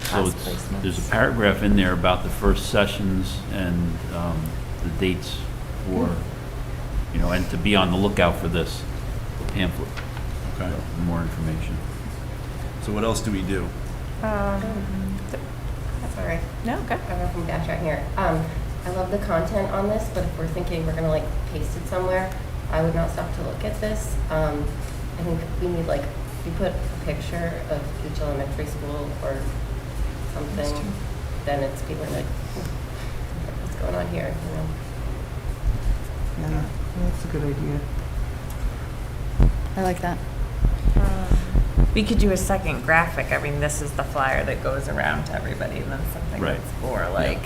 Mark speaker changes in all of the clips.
Speaker 1: so
Speaker 2: Class
Speaker 1: it's,
Speaker 2: placements.
Speaker 1: there's a paragraph in there about the first sessions and um, the dates for, you know, and to be on the lookout for this pamphlet,
Speaker 3: Okay,
Speaker 1: for more information.
Speaker 3: so what else do we do?
Speaker 2: That's all right.
Speaker 4: No, okay.
Speaker 2: I don't know if I'm backtracking here. Um, I love the content on this, but if we're thinking we're gonna like paste it somewhere, I would not stop to look at this. Um, I think we need like, if you put a picture of each elementary school or something, then it's people are like, "Hmm, what's going on here, you know?
Speaker 5: Yeah, that's a good idea.
Speaker 6: I like that.
Speaker 4: We could do a second graphic. I mean, this is the flyer that goes around to everybody, and then something
Speaker 1: Right.
Speaker 4: that's more like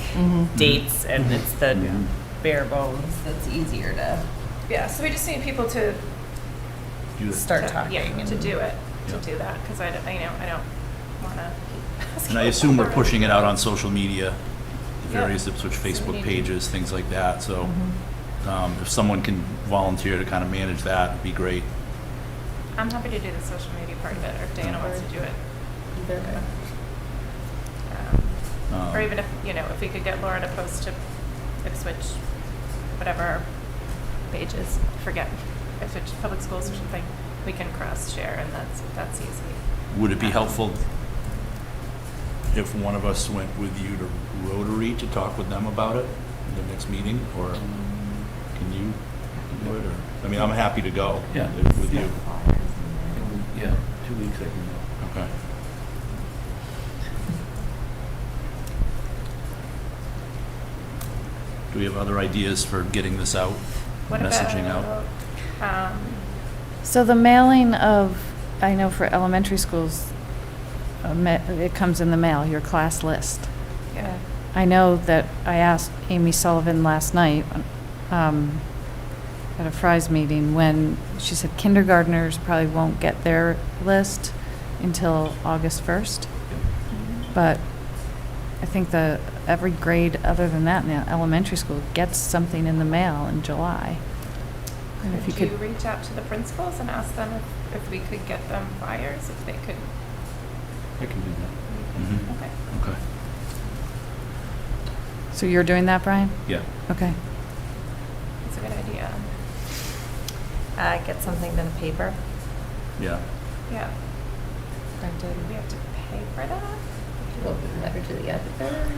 Speaker 4: dates,
Speaker 3: Mm-hmm.
Speaker 4: and it's the
Speaker 1: Mhm.
Speaker 4: bare bones Mm-hmm. that's easier to
Speaker 7: Yeah, so we just need people to,
Speaker 3: Do the-
Speaker 4: start talking.
Speaker 7: yeah, to
Speaker 4: and-
Speaker 7: do it, to
Speaker 3: Yeah.
Speaker 7: do that, because I, don't- I, you know, I don't want to keep asking.
Speaker 3: And I assume we're
Speaker 7: for
Speaker 3: pushing it out on social media, the
Speaker 7: Yeah.
Speaker 3: various Ipswich Facebook
Speaker 7: media.
Speaker 3: pages, things like that, so um, if someone can volunteer to kind of manage that, it'd be great.
Speaker 7: I'm happy to do the social media part of it, or if Dana wants to do it.
Speaker 2: Either, uh,
Speaker 7: Um,
Speaker 3: Um,
Speaker 7: Or even if, you know, if we could get Laura to post to Ipswich, whatever our page is, forget, Ipswich Public Schools or something, we can cross-share, and that's, that's easy.
Speaker 3: Would it be helpful if one of us went with you to Rotary to talk with them about it in the next meeting, or can you do it, or, I mean, I'm happy to go.
Speaker 1: Yeah.
Speaker 3: With you,
Speaker 1: Yeah, two weeks, I can go.
Speaker 3: okay. Do we have other ideas for getting this out,
Speaker 7: What
Speaker 3: messaging out?
Speaker 7: about, um,
Speaker 6: So the mailing of, I know for elementary schools, uh, ma- it comes in the mail, your class list.
Speaker 7: yeah.
Speaker 6: I know that I asked Amy Sullivan last night um, at a Fry's meeting when she said kindergarteners probably won't get their list until August 1st. But I think the, every grade other than that in the elementary school gets something in the mail in July. And if you
Speaker 7: Could you
Speaker 6: could,
Speaker 7: reach out to the principals and ask them if- if we could get them flyers, if they could?
Speaker 1: I can do that.
Speaker 5: Mm-hmm.
Speaker 3: Mhm.
Speaker 7: Okay.
Speaker 1: Mm-hmm.
Speaker 3: Okay,
Speaker 6: so you're doing that, Brian?
Speaker 1: Yeah.
Speaker 6: Okay.
Speaker 7: That's a good idea.
Speaker 4: Uh, get something to the paper
Speaker 3: yeah.
Speaker 7: Yeah,
Speaker 4: printed.
Speaker 7: we have to pay for that?
Speaker 2: Well, letter to the editor.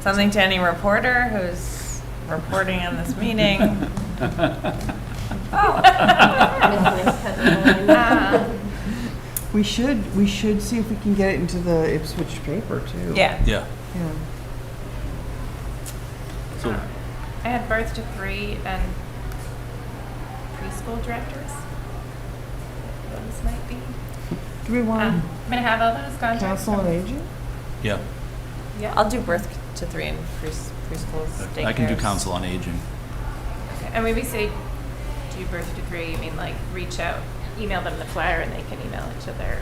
Speaker 4: Something to any reporter who's reporting on this meeting. Oh.
Speaker 2: Nice headline.
Speaker 4: Ah.
Speaker 7: Um,
Speaker 5: We should, we should see if we can get it into the Ipswich paper too.
Speaker 4: Yeah.
Speaker 3: Yeah.
Speaker 5: Yeah.
Speaker 3: So,
Speaker 7: I had birth to three and preschool directors. Those might be.
Speaker 5: Do we want
Speaker 7: Um, I'm gonna have all those contacts.
Speaker 5: council on
Speaker 7: from-
Speaker 5: aging?
Speaker 3: yeah,
Speaker 7: Yeah,
Speaker 4: I'll do birth to three and pre- preschools.
Speaker 3: I can do
Speaker 4: daycares.
Speaker 3: council on aging.
Speaker 7: Okay, And when we say do birth to three, you mean like reach out, email them the flyer and they can email each other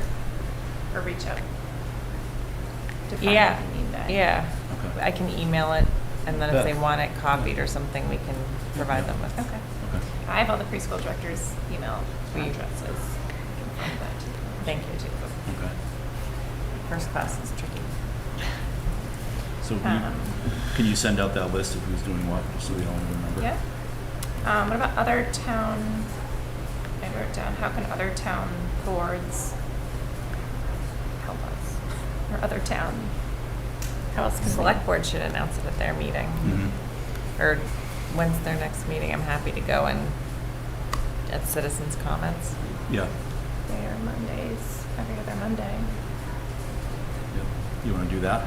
Speaker 7: or reach out? to find
Speaker 4: Yeah,
Speaker 7: if you need that.
Speaker 4: yeah.
Speaker 3: Okay.
Speaker 4: I can email it, and then if they
Speaker 3: Yeah.
Speaker 4: want it copied or something, we can provide them with.
Speaker 7: Okay.
Speaker 3: Okay.
Speaker 7: I have all the preschool directors' email
Speaker 4: We-
Speaker 7: addresses. I can find that to you.
Speaker 4: Thank you, too.
Speaker 3: Okay.
Speaker 4: First class is tricky.
Speaker 3: So we-
Speaker 7: Um.
Speaker 3: can you send out that list of who's doing what, just so we all remember?
Speaker 7: Yeah. Um, what about other town, I wrote down, how can other town boards help us? Or other town? How else
Speaker 4: The
Speaker 7: can they-
Speaker 4: Select board should announce it at their meeting,
Speaker 1: Mm-hmm.
Speaker 3: Mhm.
Speaker 4: or when's their next meeting? I'm happy to go and at citizens' comments.
Speaker 3: Yeah.
Speaker 7: They are Mondays, every other Monday.
Speaker 3: Yep. You want to do that?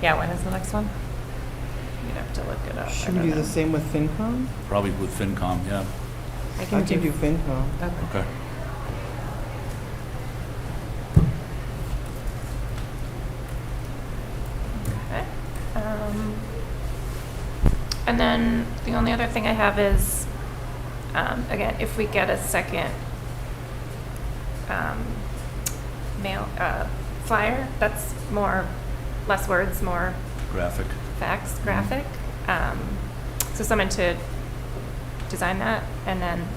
Speaker 4: Yeah, when is the next one?
Speaker 7: You'd have to look it up. Oh, I
Speaker 5: Should
Speaker 7: don't
Speaker 5: we do the
Speaker 7: know.
Speaker 5: same with FinCom?
Speaker 3: Probably with FinCom, yeah.
Speaker 4: I
Speaker 5: I can do FinCom.
Speaker 4: Okay.
Speaker 3: Okay.
Speaker 7: Okay. Um, And then the only other thing I have is, um, again, if we get a second um, mail, uh, flyer, that's more, less words, more
Speaker 3: Graphic.
Speaker 7: facts graphic. Um, So someone to design that and then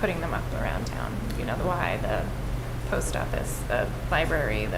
Speaker 7: putting them up around town, you know, the Y, the post office, the library, the